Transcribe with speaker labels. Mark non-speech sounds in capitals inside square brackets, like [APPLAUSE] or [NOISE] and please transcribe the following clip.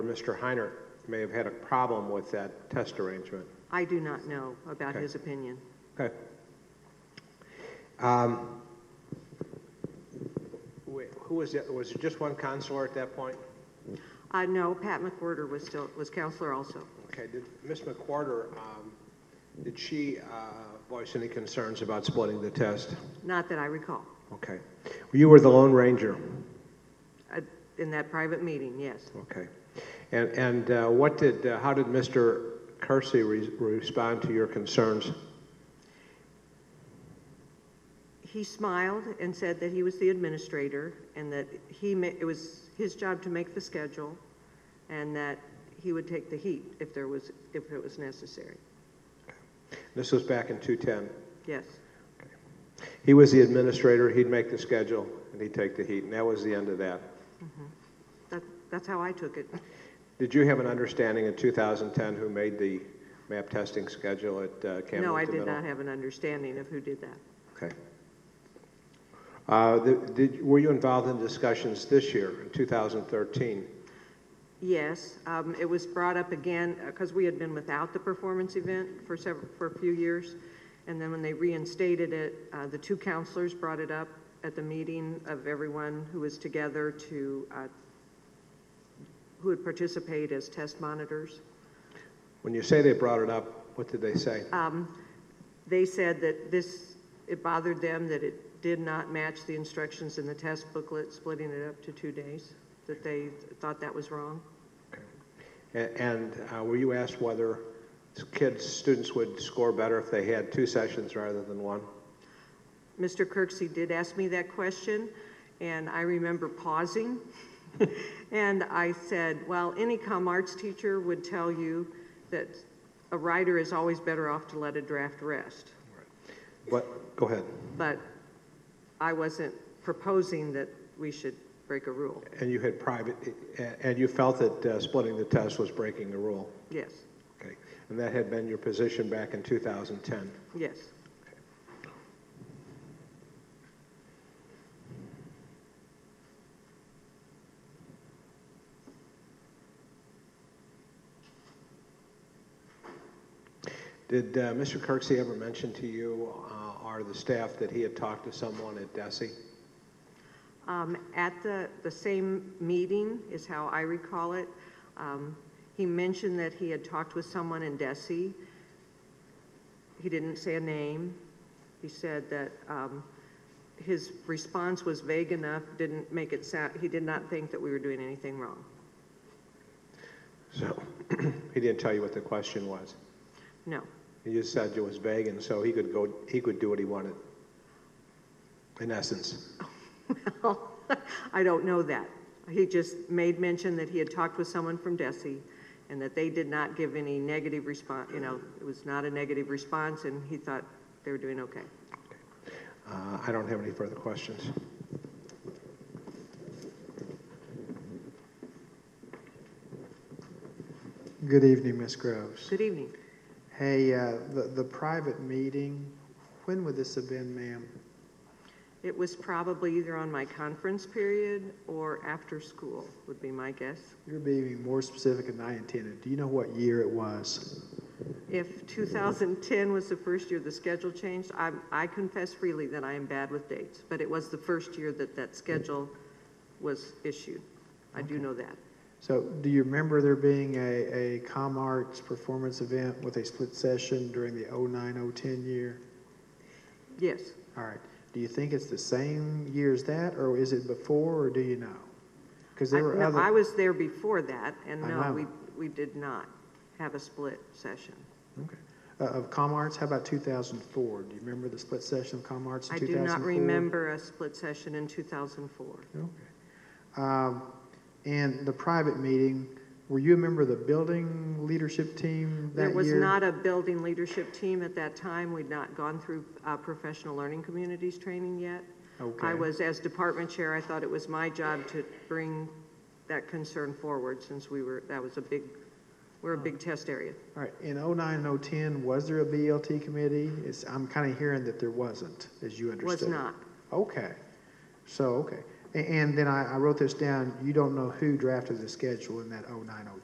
Speaker 1: Mr. Heiner may have had a problem with that test arrangement.
Speaker 2: I do not know about
Speaker 1: Okay.
Speaker 2: his opinion.
Speaker 1: Okay. Um, wait, Who was it? Was it just one counselor at that point?
Speaker 2: Uh, no, Pat McWhorter was still, was counselor also.
Speaker 1: Okay, did Ms. McWhorter, um, did she uh, voice any concerns about splitting the test?
Speaker 2: Not that I recall.
Speaker 1: Okay. You were the Lone Ranger,
Speaker 2: Uh, In that private meeting, yes.
Speaker 1: okay. And, and uh, what did, uh, how did Mr. Kersey re- respond to your concerns?
Speaker 2: He smiled and said that he was the administrator and that he, ma- it was his job to make the schedule and that he would take the heat if there was, if it was necessary.
Speaker 1: This was back in 210.
Speaker 2: Yes,
Speaker 1: He was the administrator, he'd make the schedule, and he'd take the heat, and that was the end of that.
Speaker 2: that, that's how I took it.
Speaker 1: Did you have an understanding in 2010 who made the map testing schedule at uh, Camden?
Speaker 2: No, I
Speaker 1: at the
Speaker 2: did
Speaker 1: middle?
Speaker 2: not have an understanding of who did that.
Speaker 1: Okay. Uh, the- did- Were you involved in discussions this year, in 2013?
Speaker 2: Yes, um, it was brought up again, because we had been without the performance event for several, for a few years. And then when they reinstated it, uh, the two counselors brought it up at the meeting of everyone who was together to, uh, who would participate as test monitors.
Speaker 1: When you say they brought it up, what did they say?
Speaker 2: Uh. They said that this, it bothered them that it did not match the instructions in the test booklet, splitting it up to two days, that they thought that was wrong.
Speaker 1: A- And uh, were you asked whether kids, students would score better if they had two sessions rather than one?
Speaker 2: Mr. Kirksey did ask me that question, and I remember pausing. And I said, well, any com arts teacher would tell you that a writer is always better off to let a draft rest.
Speaker 1: What, go ahead.
Speaker 2: But I wasn't proposing that we should break a rule.
Speaker 1: And you had private, a- and you felt that uh, splitting the test was breaking the rule?
Speaker 2: Yes,
Speaker 1: Okay. And that had been your position back in 2010?
Speaker 2: yes.
Speaker 1: Did uh, Mr. Kirksey ever mention to you uh, or the staff that he had talked to someone at DESI?
Speaker 2: Um, At the, the same meeting is how I recall it. um, He mentioned that he had talked with someone in Desi. He didn't say a name. He said that um, his response was vague enough, didn't make it sound, he did not think that we were doing anything wrong.
Speaker 1: So [CLEARS THROAT] he didn't tell you what the question was.
Speaker 2: No.
Speaker 1: He just said it was vague, and so he could go, he could do what he wanted, in essence.
Speaker 2: [LAUGHS] I don't know that. He just made mention that he had talked with someone from Desi and that they did not give any negative response, you know, it was not a negative response and he thought they were doing okay.
Speaker 1: Uh, I don't have any further questions.
Speaker 3: Good evening, Ms. Groves.
Speaker 2: Good evening.
Speaker 3: Hey, uh, the the private meeting, when would this have been, ma'am?
Speaker 2: It was probably either on my conference period or after school, would be my guess.
Speaker 3: You're being more specific than I intended. Do you know what year it was?
Speaker 2: If 2010 was the first year the schedule changed, I, I confess freely that I am bad with dates, but it was the first year that that schedule was issued. I do know that.
Speaker 3: So do you remember there being a a Com Arts performance event with a split session during the 09-010 year?
Speaker 2: Yes,
Speaker 3: All right. Do you think it's the same year as that, or is it before, or do you know? Because
Speaker 2: I,
Speaker 3: there were
Speaker 2: no,
Speaker 3: other...
Speaker 2: I was there before that and
Speaker 3: I
Speaker 2: no,
Speaker 3: know.
Speaker 2: we, we did not have a split session.
Speaker 3: Okay. Uh, Of Com Arts, how about 2004? Do you remember the split session of Com Arts in
Speaker 2: I
Speaker 3: 2004?
Speaker 2: do not remember a split session in 2004.
Speaker 3: Okay. Um, And the private meeting, were you a member of the building leadership team that year?
Speaker 2: There was not a building leadership team at that time. We'd not gone through uh, professional learning communities training yet. I
Speaker 3: Okay.
Speaker 2: was, as department chair, I thought it was my job to bring that concern forward since we were, that was a big, we're a big
Speaker 3: Oh.
Speaker 2: test area.
Speaker 3: All right, in '09 and '10, was there a BLT committee? It's, I'm kind of hearing that there wasn't, as you
Speaker 2: Was
Speaker 3: understood.
Speaker 2: not.
Speaker 3: Okay, so, okay. A- And then I, I wrote this down, you don't know who drafted the schedule in that oh nine, oh